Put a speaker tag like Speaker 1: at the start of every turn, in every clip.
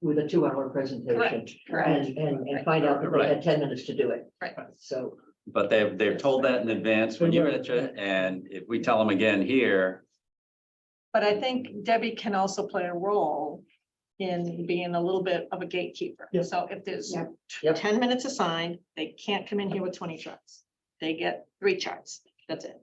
Speaker 1: with a two-hour presentation.
Speaker 2: Correct,
Speaker 1: And,
Speaker 2: correct.
Speaker 1: and, and find out that they had ten minutes to do it.
Speaker 2: Right.
Speaker 1: So,
Speaker 3: But they've, they've told that in advance when you get it, and if we tell them again here,
Speaker 2: But I think Debbie can also play a role in being a little bit of a gatekeeper.
Speaker 1: Yep.
Speaker 2: So if there's
Speaker 4: Yep.
Speaker 1: Yep.
Speaker 2: ten minutes assigned, they can't come in here with twenty charts. They get three charts. That's it.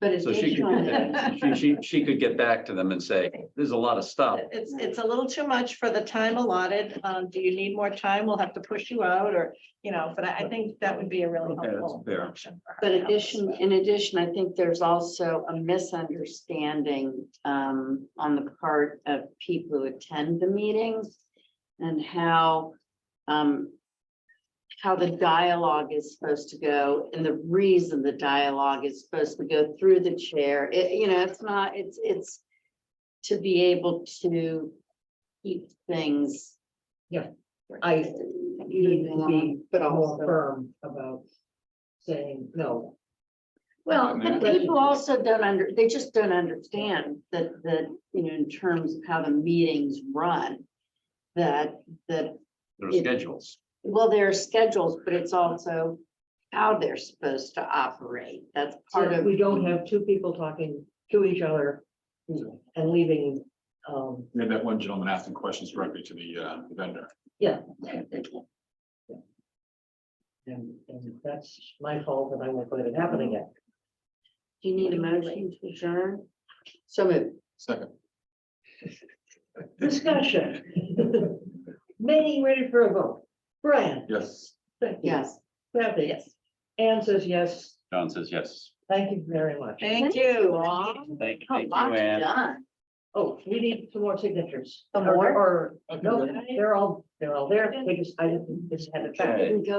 Speaker 4: But it's
Speaker 3: so she
Speaker 4: each
Speaker 3: could,
Speaker 4: one,
Speaker 3: get that- she, she, she could get back to them and say, there's a lot of stuff.
Speaker 2: It's, it's a little too much for the time allotted. Um, do you need more time? We'll have to push you out or, you know, but I, I think that would be a really
Speaker 3: Okay, that's
Speaker 2: helpful
Speaker 3: fair.
Speaker 2: option. for her
Speaker 4: but
Speaker 2: to help us
Speaker 4: addition,
Speaker 2: with.
Speaker 4: in addition, I think there's also a misunderstanding um on the part of people who attend the meetings. And how um. How the dialogue is supposed to go and the reason the dialogue is supposed to go through the chair. It, you know, it's not, it's, it's. To be able to keep things.
Speaker 1: I need to be
Speaker 4: But
Speaker 1: more
Speaker 4: also.
Speaker 1: firm about saying, no,
Speaker 4: Well,
Speaker 3: Yeah.
Speaker 4: but people also don't under, they just don't understand that, that, you know, in terms of how the meetings run. That, that,
Speaker 3: There are schedules.
Speaker 4: well, there are schedules, but it's also how they're supposed to operate. That's part
Speaker 1: so
Speaker 4: of.
Speaker 1: we don't have two people talking to each other and leaving, um,
Speaker 5: We had that one gentleman asking questions directly to the uh, vendor.
Speaker 1: yeah. And, and that's my fault that I won't let it happen again.
Speaker 4: Do you need a motion to adjourn? So moved.
Speaker 5: Second.
Speaker 1: Discussion. Manning ready for a vote. Brian.
Speaker 5: Yes.
Speaker 1: Becky,
Speaker 4: yes.
Speaker 1: Kathy.
Speaker 2: Yes.
Speaker 1: Anne says yes.
Speaker 3: John says, yes.
Speaker 1: Thank you very much.
Speaker 2: Thank you all.
Speaker 4: all.
Speaker 3: Thank,
Speaker 4: A
Speaker 3: thank you,
Speaker 4: lot
Speaker 3: Ann.
Speaker 4: done.
Speaker 1: Oh, we need some more signatures.
Speaker 4: Some
Speaker 1: Or-
Speaker 4: more?
Speaker 1: Or, no, they're all, they're all there. They just, I just had a check.
Speaker 3: Okay.
Speaker 4: Didn't go